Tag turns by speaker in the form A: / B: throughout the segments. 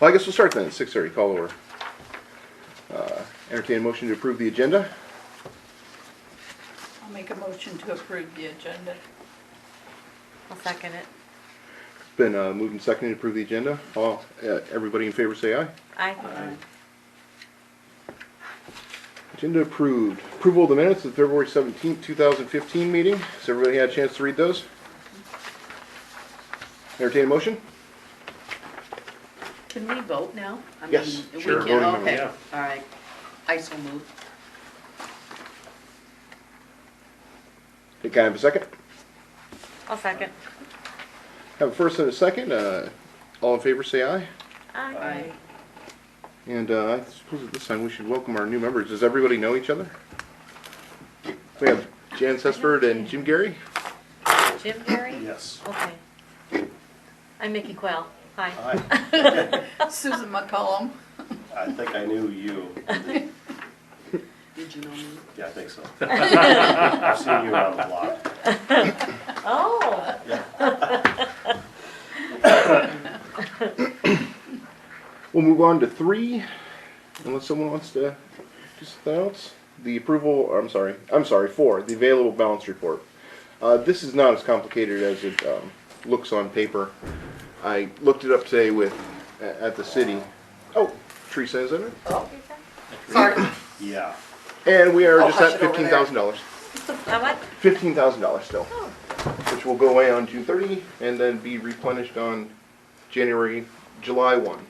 A: Well, I guess we'll start then, six thirty, call over. Uh, Entertain a motion to approve the agenda.
B: I'll make a motion to approve the agenda.
C: I'll second it.
A: It's been uh, moved and seconded to approve the agenda. All, uh, everybody in favor say aye.
C: Aye.
A: Agenda approved. Approval of the minutes of the February seventeenth, two thousand fifteen meeting. Has everybody had a chance to read those? Entertain a motion?
D: Can we vote now? I
A: Yes,
D: mean, we
A: sure,
D: can-
A: voting member,
D: Okay,
E: yeah.
D: all right. I so move.
A: Can I have a second?
C: I'll second.
A: Have a first and a second. Uh, all in favor say aye.
C: Aye.
D: Aye.
A: And uh, I suppose at this time we should welcome our new members. Does everybody know each other? We have Jan Sesford and Jim Gary.
C: Jim Perry?
E: Yes.
C: Okay. I'm Mickey Quell. Hi.
E: I,
B: Susan McCollum.
E: I think I knew you.
D: Did you know me?
E: Yeah, I think so. I've seen you around a lot.
C: Oh,
A: We'll move on to three, unless someone wants to do something else. The approval, I'm sorry, I'm sorry, four, the available balance report. Uh, this is not as complicated as it, um, looks on paper. I looked it up today with, at, at the city. Oh, Teresa is in it.
C: Oh.
D: Sorry.
E: Yeah.
A: And we are
D: Oh,
A: just
D: hush
A: at
D: it over
A: fifteen
D: there.
A: thousand dollars.
C: I what?
A: fifteen thousand dollars still, which will go away on June thirty and then be replenished on January, July one.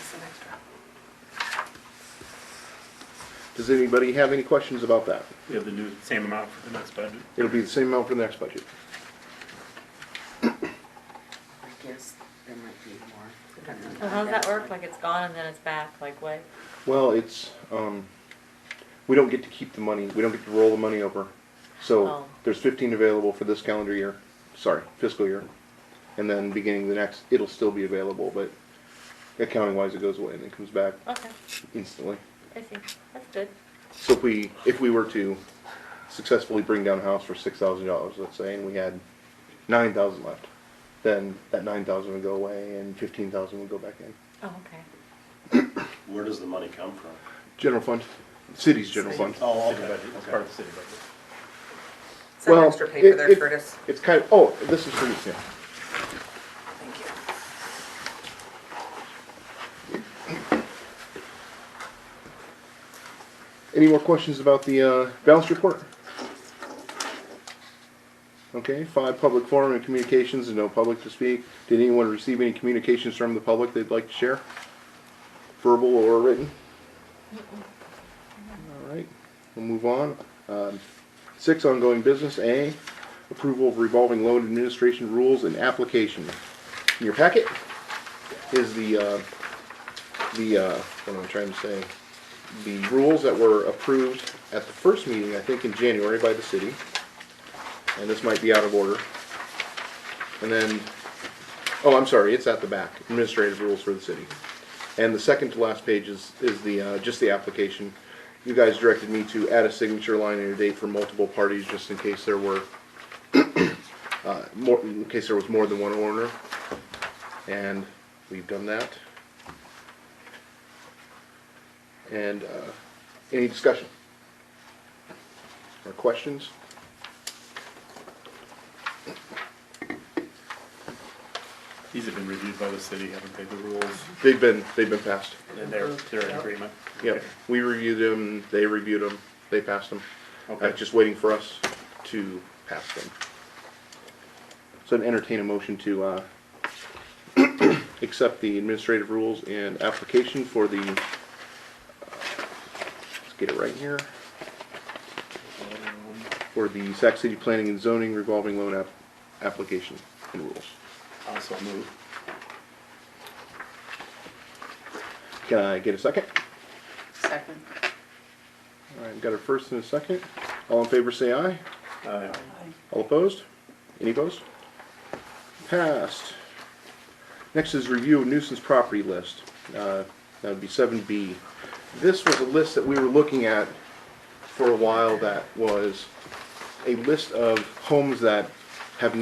D: It's an extra.
A: Does anybody have any questions about that?
F: We have the new, same amount for the next budget.
A: It'll be the same amount for the next budget.
D: I guess there might be more. I don't know.
C: So how does Uh-huh, that work? Like it's gone and then it's back, like what?
A: Well, it's, um, we don't get to keep the money, we don't get to roll the money over. So
C: Oh.
A: there's fifteen available for this calendar year, sorry, fiscal year. And then beginning the next, it'll still be available, but accounting wise, it goes away and then comes back
C: Okay,
A: instantly.
C: I see. That's good.
A: So if we, if we were to successfully bring down a house for six thousand dollars, let's say, and we had nine thousand left, then that nine thousand would go away and fifteen thousand would go back in.
C: Oh, okay.
E: Where does the money come from?
A: General fund, city's general fund.
E: Oh,
F: City
E: okay.
F: budget, It's part of the city budget.
G: Some
A: Well,
G: extra paper
A: it-
G: there,
A: it-
G: Curtis.
A: It's kind of, oh, this is for you, yeah.
G: Thank you.
A: Any more questions about the, uh, balance report? Okay, five, public forum and communications, and no public to speak. Did anyone receive any communications from the public they'd like to share? Verbal or written? All right, we'll move on. Um, six, ongoing business, A, approval of revolving loan administration rules and application. In your packet is the, uh, the, uh, what am I trying to say? The rules that were approved at the first meeting, I think in January by the city. And this might be out of order. And then, oh, I'm sorry, it's at the back, administrative rules for the city. And the second to last page is, is the, uh, just the application. You guys directed me to add a signature line and a date for multiple parties, just in case there were, uh, more, in case there was more than one owner. And we've done that. And, uh, any discussion? Or questions?
F: These have been reviewed by the city, haven't they, the rules,
A: They've been, they've been passed.
F: and they're, they're in agreement?
A: Yep, we reviewed them, they reviewed them, they passed them. Uh,
F: Okay.
A: just waiting for us to pass them. So I'd entertain a motion to, uh, accept the administrative rules and application for the, uh, let's get it right here,
F: Um,
A: for the Sac City Planning and Zoning revolving loan app, application and rules.
F: Also move.
A: Can I get a second?
D: Second.
A: All right, got a first and a second. All in favor, say aye.
F: Uh,
B: Aye.
A: All opposed? Any opposed? Passed. Next is review of nuisance property list. Uh, That would be seven B. This was a list that we were looking at for a while that was a list of homes that